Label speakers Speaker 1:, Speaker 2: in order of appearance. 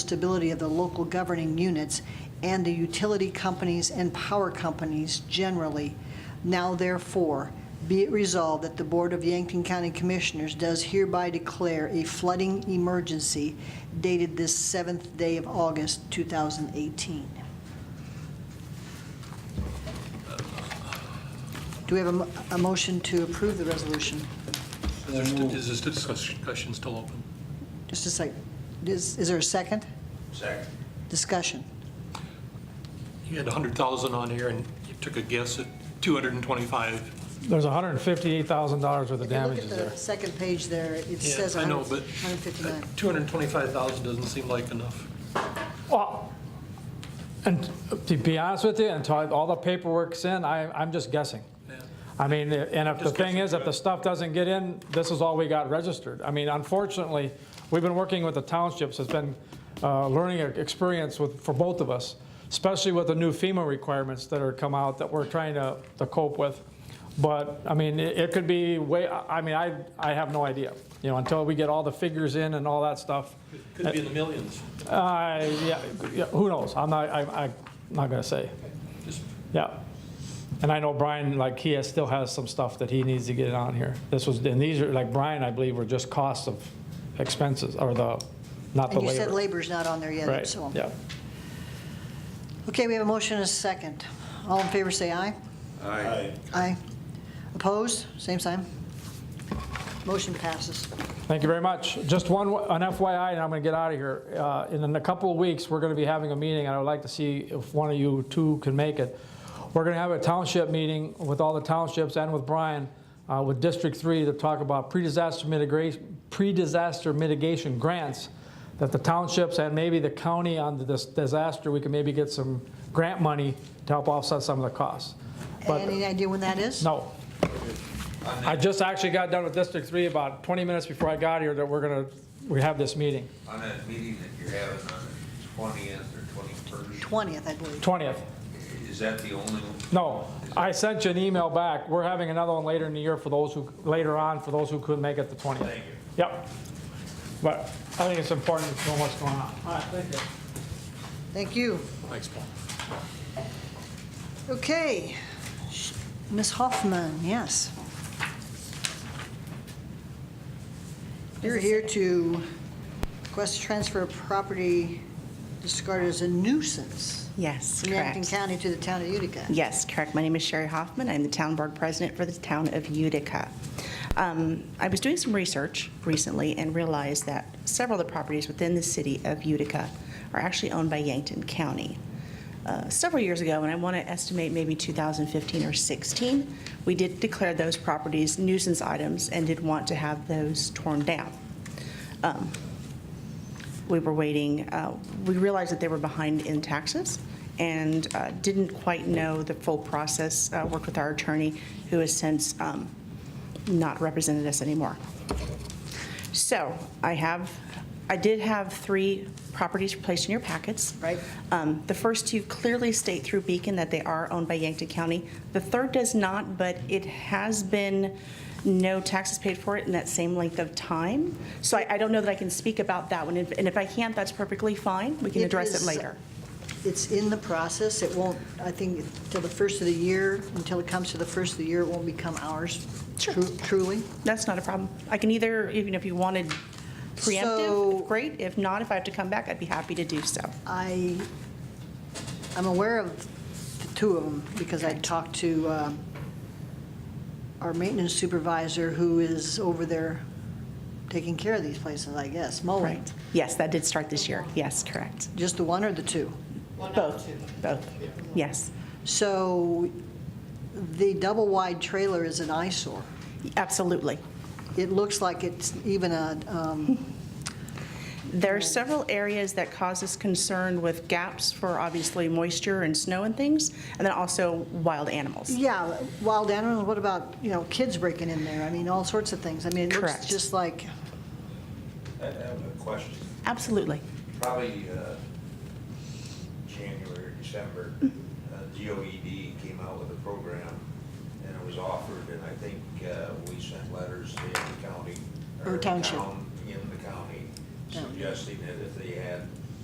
Speaker 1: stability of the local governing units and the utility companies and power companies generally. Now therefore, be it resolved that the Board of Yankton County Commissioners does hereby declare a flooding emergency dated this 7th day of August, 2018. Do we have a mo- a motion to approve the resolution?
Speaker 2: Is there st- Is this discussion still open?
Speaker 1: Just a sec, is, is there a second?
Speaker 3: Second.
Speaker 1: Discussion.
Speaker 2: You had 100,000 on here, and you took a guess at 225.
Speaker 4: There's $158,000 worth of
Speaker 1: If
Speaker 4: damages
Speaker 1: you look
Speaker 4: there.
Speaker 1: at the second page there, it
Speaker 2: Yeah,
Speaker 1: says
Speaker 2: I know,
Speaker 1: 100
Speaker 2: but
Speaker 1: 159.
Speaker 2: 225,000 doesn't seem like enough.
Speaker 4: Well, and to be honest with you, until I- all the paperwork's in, I, I'm just guessing.
Speaker 2: Yeah.
Speaker 4: I mean, and if the
Speaker 2: Just
Speaker 4: thing
Speaker 2: guessing,
Speaker 4: is, if the
Speaker 2: right.
Speaker 4: stuff doesn't get in, this is all we got registered. I mean, unfortunately, we've been working with the townships, it's been a learning e-, experience with, for both of us, especially with the new FEMA requirements that are come out that we're trying to, to cope with. But, I mean, it, it could be way, I I mean, I, I have no idea, you know, until we get all the figures in and all that stuff.
Speaker 2: Could be in the millions.
Speaker 4: Uh, yeah, yeah, who knows? I'm not, I, I'm not gonna say.
Speaker 2: Just
Speaker 4: Yeah. And I know Brian, like, he has, still has some stuff that he needs to get on here. This was, and these are, like, Brian, I believe, were just costs of expenses, or the, not the
Speaker 1: And you said
Speaker 4: labor.
Speaker 1: labor's not on there yet,
Speaker 4: Right,
Speaker 1: so.
Speaker 4: yeah.
Speaker 1: Okay, we have a motion and a second. All in favor, say aye.
Speaker 3: Aye.
Speaker 1: Aye. Opposed? Same sign. Motion passes.
Speaker 4: Thank you very much. Just one, an FYI, and I'm gonna get out of here. Uh, In a couple of weeks, we're gonna be having a meeting, and I would like to see if one of you two can make it. We're gonna have a township meeting with all the townships and with Brian, uh, with District Three, to talk about pre-disaster mitigation, pre-disaster mitigation grants that the townships and maybe the county on this disaster, we can maybe get some grant money to help offset some of the costs. But-
Speaker 1: Any idea when that is?
Speaker 4: no. I just actually got done with District 3 about 20 minutes before I got here that we're going to, we have this meeting,
Speaker 3: On that meeting that you're having on the twentieth or twenty-first,
Speaker 1: 20th, I believe.
Speaker 4: 20th.
Speaker 3: is that the only one?
Speaker 4: No, I sent you an email back. We're having another one later in the year for those who, later on, for those who couldn't make it the 20th.
Speaker 3: Thank you.
Speaker 4: Yep. But I think it's important to know what's going on. All right, thank you.
Speaker 1: Thank you.
Speaker 2: Thanks, Paul.
Speaker 1: Okay. Sh- Ms. Hoffman, yes. You're here to request a transfer of property discarded as a nuisance
Speaker 5: Yes,
Speaker 1: from Yankton
Speaker 5: correct.
Speaker 1: County to the town of Utica.
Speaker 5: Yes, correct. My name is Sherry Hoffman. I'm the town board president for the town of Utica. Um, I was doing some research recently and realized that several of the properties within the city of Utica are actually owned by Yankton County. Uh, Several years ago, and I want to estimate maybe 2015 or 16, we did declare those properties nuisance items and did want to have those torn down we were waiting, uh, we realized that they were behind in taxes and uh, didn't quite know the full process, Uh, worked with our attorney, who has since um, not represented us anymore. So I have, I did have three properties placed in your packets.
Speaker 1: Right.
Speaker 5: Um, The first two clearly state through Beacon that they are owned by Yankton County. The third does not, but it has been no taxes paid for it in that same length of time. So I I don't know that I can speak about that one, and if I can't, that's perfectly fine. We can
Speaker 1: It
Speaker 5: address
Speaker 1: is-
Speaker 5: it later.
Speaker 1: It's in the process. It won't, I think, till the first of the year, until it comes to the first of the year, it won't become ours.
Speaker 5: Sure.
Speaker 1: tru- Truly.
Speaker 5: That's not a problem. I can either, even if you wanted
Speaker 1: So-
Speaker 5: preemptive, great. If not, if I have to come back, I'd be happy to do so.
Speaker 1: I, I'm aware of the two of them because I talked to um, our maintenance supervisor who is over there taking care of these places, I guess, mowing.
Speaker 5: Right. Yes, that did start this year. Yes, correct.
Speaker 1: Just the one or the two?
Speaker 5: Both, both. Yes,
Speaker 1: So the double-wide trailer is an eyesore.
Speaker 5: absolutely.
Speaker 1: It looks like it's even a, um,
Speaker 5: There are several areas that cause us concern with gaps for obviously moisture and snow and things, and then also wild animals.
Speaker 1: yeah, wild animals, what about, you know, kids breaking in there? I mean, all sorts of things. I mean, it looks
Speaker 5: Correct.
Speaker 1: just like,
Speaker 3: I have a uh, question.
Speaker 5: Absolutely.
Speaker 3: Probably, uh, January, or December, uh, DOED came out with a program and it was offered and I think, uh, we sent letters to the county.
Speaker 1: Or township.
Speaker 3: town In the county
Speaker 1: Yeah.
Speaker 3: suggesting that if they had